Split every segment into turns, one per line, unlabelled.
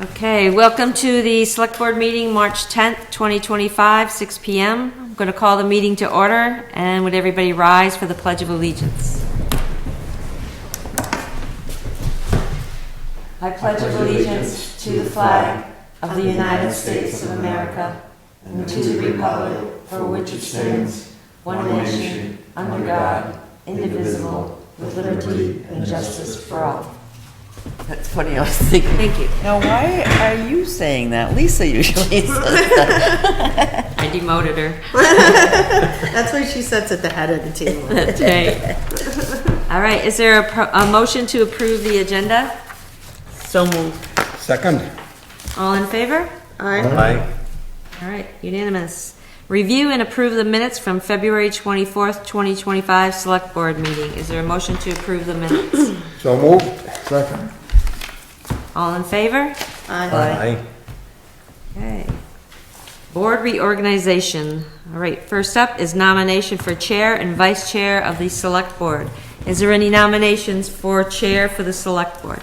Okay, welcome to the Select Board meeting, March 10th, 2025, 6 PM. I'm going to call the meeting to order, and would everybody rise for the Pledge of Allegiance? I pledge allegiance to the flag of the United States of America and to the republic for which it stands, one nation, under God, indivisible, with liberty and justice for all.
That's funny, I was thinking,
Thank you.
now why are you saying that? Lisa usually says that.
I demoted her.
That's why she sits at the head of the table.
That's right. All right, is there a, pro- a motion to approve the agenda?
So moved.
Second.
All in favor?
Aye.
Aye.
All right, unanimous. Review and approve the minutes from February 24th, 2025 Select Board meeting. Is there a motion to approve the minutes?
So moved. Second.
All in favor?
Aye.
Okay. Board reorganization. All right, first up is nomination for Chair and Vice Chair of the Select Board. Is there any nominations for Chair for the Select Board?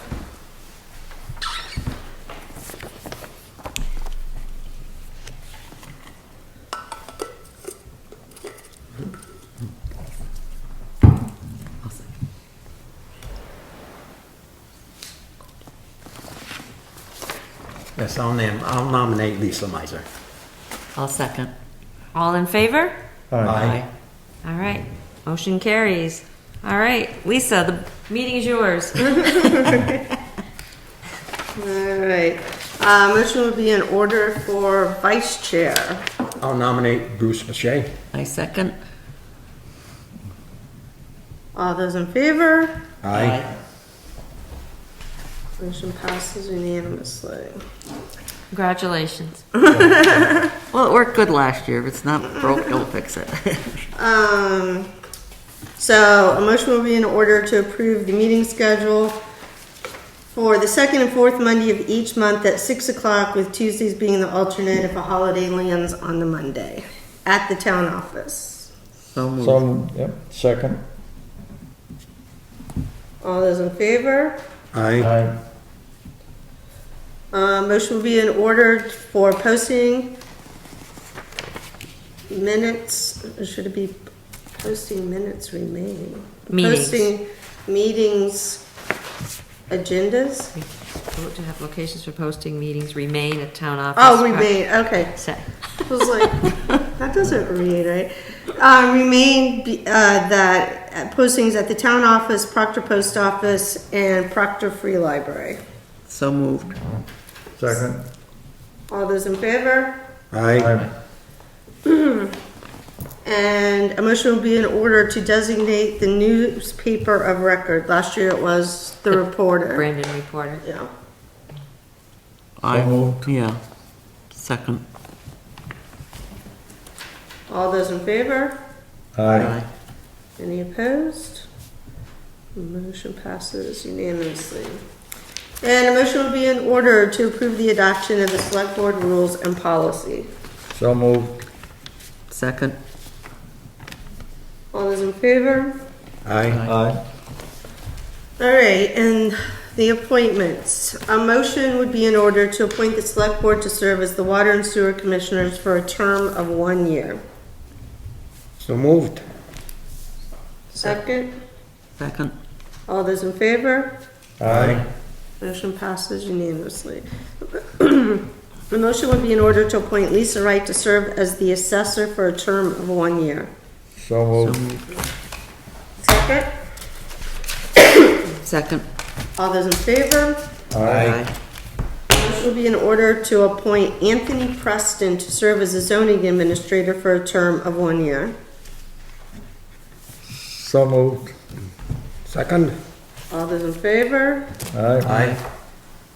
Yes, I'll name, I'll nominate Lisa Meiser.
I'll second.
All in favor?
Aye.
All right, motion carries. All right, Lisa, the meeting is yours.
All right. Uh, motion would be in order for vice chair.
I'll nominate Bruce Boucher.
I second.
All those in favor? Motion passes unanimously.
Congratulations.
Well, it worked good last year. If it's not broke, don't fix it.
Um, so a motion will be in order to approve the meeting schedule for the second and fourth Monday of each month at six o'clock, with Tuesdays being the alternate if a holiday lands on the Monday at the town office.
So moved.
So, yep, second.
All those in favor?
Aye.
Aye.
Uh, Motion will be in order for posting minutes, should it be posting minutes remain?
Meetings.
Posting meetings, agendas?
We vote to have locations for posting meetings remain at town office.
Oh, remain, okay.
Say.
I was like, that doesn't remain right. Uh, Remain be- uh, that postings at the town office, Proctor Post Office, and Proctor Free Library.
So moved.
Second.
All those in favor?
Aye.
Aye.
And a motion will be in order to designate the newspaper of record. Last year it was The Reporter.
Brandon Reporter.
Yeah.
I
moved.
Yeah. Second.
All those in favor?
Aye.
Any opposed? Motion passes unanimously. And a motion will be in order to approve the adoption of the Select Board rules and policy.
So moved.
Second.
All those in favor?
Aye.
Aye.
All right, and the appointments. A motion would be in order to appoint the Select Board to serve as the Water and Sewer Commissioners for a term of one year.
So moved.
Second,
Second.
all those in favor?
Aye.
Motion passes unanimously. The motion would be in order to appoint Lisa Wright to serve as the assessor for a term of one year.
So
So
moved.
moved.
Second,
Second.
all those in favor? Motion would be in order to appoint Anthony Preston to serve as a zoning administrator for a term of one year.
So moved.
Second.
All those in favor?
Aye.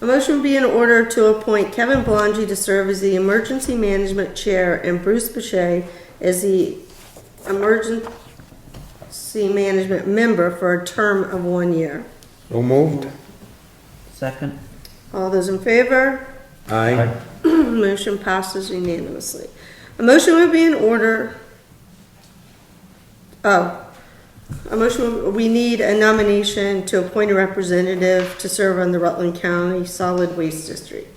A motion would be in order to appoint Kevin Belangi to serve as the Emergency Management Chair and Bruce Boucher as the Emergency Management Member for a term of one year.
So moved.
Second.
All those in favor?
Aye.
Motion passes unanimously. A motion would be in order. Oh, a motion, we need a nomination to appoint a representative to serve on the Rutland County Solid Waste District.